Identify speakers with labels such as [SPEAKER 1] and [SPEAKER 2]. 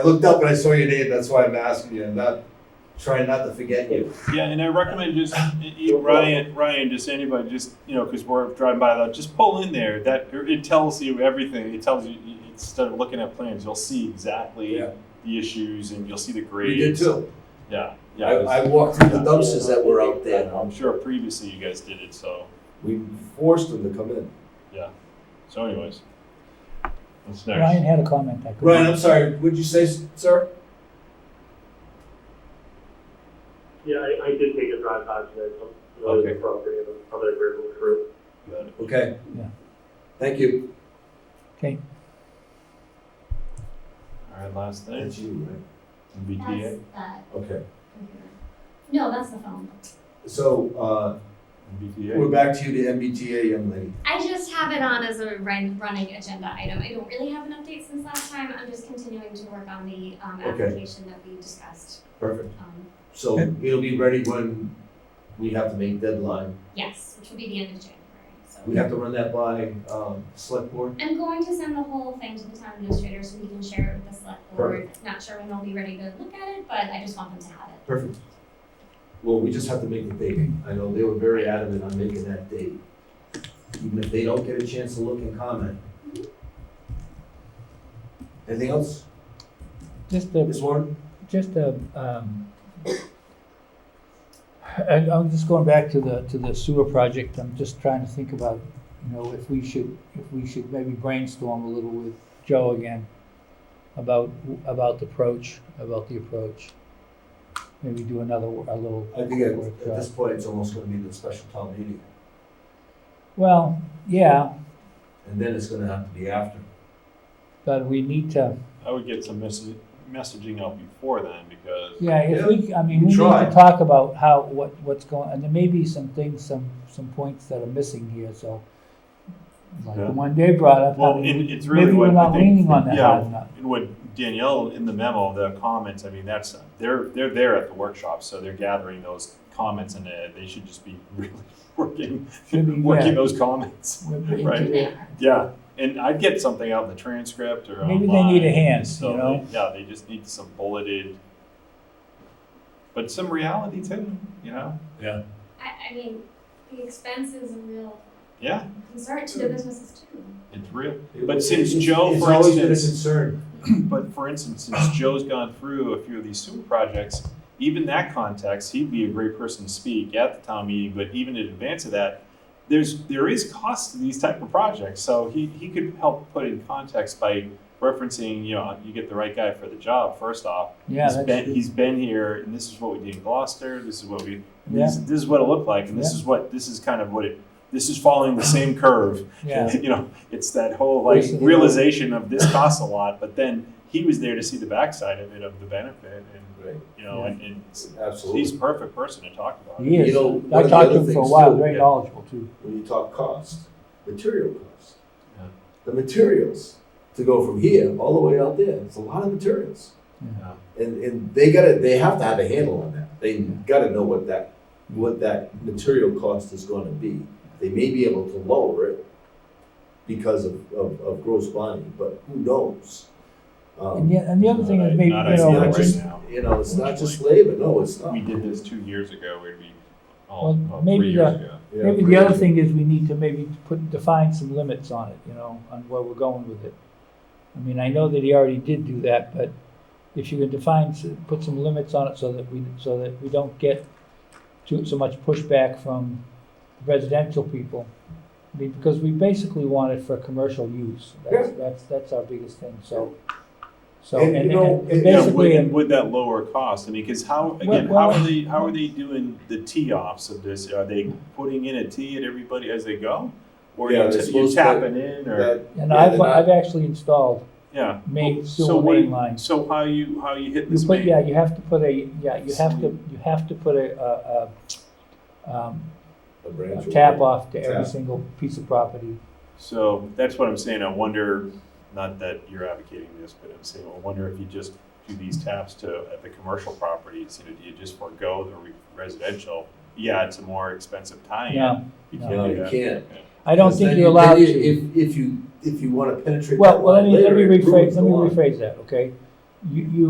[SPEAKER 1] I looked up and I saw your name, that's why I'm asking you, I'm not trying not to forget you.
[SPEAKER 2] Yeah, and I recommend just e- e- Ryan, Ryan, just anybody, just you know, because we're driving by that, just pull in there. That it tells you everything. It tells you e, instead of looking at plans, you'll see exactly
[SPEAKER 1] Yeah.
[SPEAKER 2] the issues and you'll see the
[SPEAKER 1] You
[SPEAKER 2] grades.
[SPEAKER 1] did too.
[SPEAKER 2] Yeah, yeah.
[SPEAKER 1] I,
[SPEAKER 2] it was-
[SPEAKER 1] I walked through the dumpsters that were out there.
[SPEAKER 2] I'm sure previously you guys did it. So,
[SPEAKER 1] We forced them to come in.
[SPEAKER 2] so anyways, what's next?
[SPEAKER 3] Ryan had a comment. I couldn't-
[SPEAKER 1] Ryan, I'm sorry, what'd you say, sir?
[SPEAKER 4] Yeah, I, I did take a drive by today, so I'm familiar with
[SPEAKER 2] Okay.
[SPEAKER 4] the property and I'm other agreeable for it.
[SPEAKER 2] Good.
[SPEAKER 1] Okay.
[SPEAKER 3] Yeah.
[SPEAKER 1] Thank you.
[SPEAKER 3] Okay,
[SPEAKER 2] All right, last thing.
[SPEAKER 1] you,
[SPEAKER 2] MBTA.
[SPEAKER 5] That's that
[SPEAKER 1] Okay,
[SPEAKER 5] computer. No, that's the phone.
[SPEAKER 1] so, uh, we're
[SPEAKER 2] MBTA.
[SPEAKER 1] back to you, the MBTA young lady.
[SPEAKER 5] I just have it on as a run, running agenda item. I don't really have an update since last time. I'm just continuing to work on the um,
[SPEAKER 1] Okay.
[SPEAKER 5] application that we discussed.
[SPEAKER 1] Perfect.
[SPEAKER 5] Um,
[SPEAKER 1] So it'll be ready when we have to make deadline.
[SPEAKER 5] yes, which will be the end of January. So
[SPEAKER 1] We have to run that by, um, select board?
[SPEAKER 5] I'm going to send the whole thing to the town administrator so he can share it with the select board. Not sure when they'll be ready to look at it, but I just want them to have it.
[SPEAKER 1] Perfect. Well, we just have to make the date. I know they were very adamant on making that date. Even if they don't get a chance to look and comment. Anything else,
[SPEAKER 3] just a,
[SPEAKER 1] Ms. Warren?
[SPEAKER 3] just a, um, and I'm just going back to the, to the sewer project, I'm just trying to think about, you know, if we should, if we should maybe brainstorm a little with Joe again about, about the approach, about the approach. Maybe do another, wo- a little.
[SPEAKER 1] I think at, at
[SPEAKER 3] workshop.
[SPEAKER 1] this point, it's almost gonna be the special town meeting,
[SPEAKER 3] Well, yeah,
[SPEAKER 1] and then it's gonna have to be after.
[SPEAKER 3] but we need to,
[SPEAKER 2] I would get some message, messaging out before then because
[SPEAKER 3] Yeah, if we, I mean,
[SPEAKER 1] we
[SPEAKER 3] we need
[SPEAKER 1] try.
[SPEAKER 3] to talk about how, what, what's going, and there may be some things, some, some points that are missing here, so. Like
[SPEAKER 2] Yeah.
[SPEAKER 3] the one Dave brought up, I
[SPEAKER 2] Well,
[SPEAKER 3] mean,
[SPEAKER 2] it- it's really
[SPEAKER 3] maybe
[SPEAKER 2] what
[SPEAKER 3] we're
[SPEAKER 2] I
[SPEAKER 3] not
[SPEAKER 2] think-
[SPEAKER 3] leaning on that
[SPEAKER 2] yeah.
[SPEAKER 3] hard enough.
[SPEAKER 2] And what Danielle in the memo, the comments, I mean, that's, they're, they're there at the workshop, so they're gathering those comments and uh, they should just be really working,
[SPEAKER 3] Should be, yeah.
[SPEAKER 2] working those comments.
[SPEAKER 3] We're-
[SPEAKER 5] Put it in
[SPEAKER 2] Right.
[SPEAKER 5] there.
[SPEAKER 2] Yeah, and I'd get something out of the transcript or
[SPEAKER 3] Maybe they need a
[SPEAKER 2] online,
[SPEAKER 3] hand,
[SPEAKER 2] so
[SPEAKER 3] you know?
[SPEAKER 2] they- Yeah, they just need some bulleted, but some reality too, you know?
[SPEAKER 5] I, I mean, the expense is a real
[SPEAKER 2] Yeah,
[SPEAKER 5] concern to the businesses too.
[SPEAKER 2] it's real.
[SPEAKER 1] It-
[SPEAKER 2] But
[SPEAKER 1] it-
[SPEAKER 2] since
[SPEAKER 1] it's-
[SPEAKER 2] Joe,
[SPEAKER 1] It's
[SPEAKER 2] for
[SPEAKER 1] always been a
[SPEAKER 2] instance-
[SPEAKER 1] concern.
[SPEAKER 2] But for instance, since Joe's gone through a few of these sewer projects, even that context, he'd be a great person to speak at the town meeting, but even in advance of that, there's, there is cost to these type of projects, so he, he could help put in context by referencing, you know, you get the right guy for the job, first off.
[SPEAKER 3] Yeah,
[SPEAKER 2] He's
[SPEAKER 3] that's
[SPEAKER 2] been,
[SPEAKER 3] true.
[SPEAKER 2] he's been here, and this is what we did in Gloucester, this is what we,
[SPEAKER 3] Yeah.
[SPEAKER 2] this, this is what it looked like, and this is what, this is kind of what it, this is following the same curve
[SPEAKER 3] yeah,
[SPEAKER 2] you know, it's that whole like
[SPEAKER 3] Basically.
[SPEAKER 2] realization of this costs a lot, but then he was there to see the backside of it, of the benefit, and
[SPEAKER 1] Right,
[SPEAKER 2] you know, and, and s- he's
[SPEAKER 1] absolutely.
[SPEAKER 2] the perfect person to talk about. it.
[SPEAKER 3] he is,
[SPEAKER 1] know, one
[SPEAKER 3] I
[SPEAKER 1] of the
[SPEAKER 3] talked to
[SPEAKER 1] other
[SPEAKER 3] him for a
[SPEAKER 1] things
[SPEAKER 3] while,
[SPEAKER 1] too,
[SPEAKER 3] very
[SPEAKER 2] yeah.
[SPEAKER 3] knowledgeable too.
[SPEAKER 1] When you talk cost, material cost.
[SPEAKER 2] Yeah.
[SPEAKER 1] The materials to go from here all the way out there, it's a lot of materials.
[SPEAKER 2] Yeah.
[SPEAKER 1] And, and they gotta, they have to have a handle on that. They gotta know what that, what that material cost is gonna be. They may be able to lower it because of, of, of gross bonding, but who knows? Um,
[SPEAKER 3] And yeah, and the other thing is
[SPEAKER 2] Not-
[SPEAKER 3] maybe, you
[SPEAKER 2] not
[SPEAKER 1] It's
[SPEAKER 2] ideal
[SPEAKER 3] know,
[SPEAKER 1] not
[SPEAKER 2] right
[SPEAKER 1] just,
[SPEAKER 2] now.
[SPEAKER 1] you know, it's not just labor, no, it's not.
[SPEAKER 2] We did this two years ago. We'd be all
[SPEAKER 3] Well,
[SPEAKER 2] well,
[SPEAKER 3] maybe uh,
[SPEAKER 2] three years
[SPEAKER 3] the-
[SPEAKER 2] ago.
[SPEAKER 1] Yeah.
[SPEAKER 3] maybe the other thing is we need to maybe put, define some limits on it, you know, on where we're going with it. I mean, I know that he already did do that, but if you can define, s- put some limits on it so that we, so that we don't get too, so much pushback from residential people. I mean, because we basically want it for commercial use. That's, that's, that's our biggest thing, so. So,
[SPEAKER 1] And,
[SPEAKER 3] and,
[SPEAKER 1] you
[SPEAKER 3] and
[SPEAKER 1] know,
[SPEAKER 3] and
[SPEAKER 1] it- Yeah,
[SPEAKER 2] Yeah,
[SPEAKER 3] basically, uh,
[SPEAKER 2] would, would that lower cost? I mean, because how again,
[SPEAKER 3] Well-
[SPEAKER 2] how are they how are they doing the tee offs of this? Are they putting in a tee at everybody as they go, or
[SPEAKER 1] Yeah, they're
[SPEAKER 2] you, t- you
[SPEAKER 1] supposed to-
[SPEAKER 2] tapping in, or
[SPEAKER 1] That-
[SPEAKER 3] and
[SPEAKER 1] yeah,
[SPEAKER 3] I've,
[SPEAKER 1] they're not-
[SPEAKER 3] I've actually installed
[SPEAKER 2] yeah?
[SPEAKER 3] main,
[SPEAKER 2] so
[SPEAKER 3] sewer
[SPEAKER 2] what-
[SPEAKER 3] main lines.
[SPEAKER 2] So how you how you hit
[SPEAKER 3] You
[SPEAKER 2] this?
[SPEAKER 3] put,
[SPEAKER 2] main-
[SPEAKER 3] yeah, you have to put a, yeah, you have to,
[SPEAKER 2] So-
[SPEAKER 3] you have to put a, a, a, um,
[SPEAKER 1] A
[SPEAKER 3] a
[SPEAKER 1] branch.
[SPEAKER 3] tap off to every
[SPEAKER 1] Tap.
[SPEAKER 3] single piece of property.
[SPEAKER 2] So that's what I'm saying. I wonder, not that you're advocating this, but I'm saying, I wonder if you just do these taps to, at the commercial properties, you know, do you just forego the re- residential? Yeah, it's a more expensive tie-in.
[SPEAKER 3] No,
[SPEAKER 2] You
[SPEAKER 3] no.
[SPEAKER 1] No,
[SPEAKER 2] can't do
[SPEAKER 1] you
[SPEAKER 2] that.
[SPEAKER 1] can't.
[SPEAKER 3] I don't
[SPEAKER 1] Because then
[SPEAKER 3] think you're
[SPEAKER 1] you- then
[SPEAKER 3] allowed
[SPEAKER 1] you-
[SPEAKER 3] to.
[SPEAKER 1] If, if you, if you wanna penetrate.
[SPEAKER 3] Well,
[SPEAKER 1] that
[SPEAKER 3] well, let
[SPEAKER 1] line
[SPEAKER 3] me, let
[SPEAKER 1] later,
[SPEAKER 3] me
[SPEAKER 1] it ruins
[SPEAKER 3] rephrase, let
[SPEAKER 1] the
[SPEAKER 3] me
[SPEAKER 1] line.
[SPEAKER 3] rephrase that, okay? you, you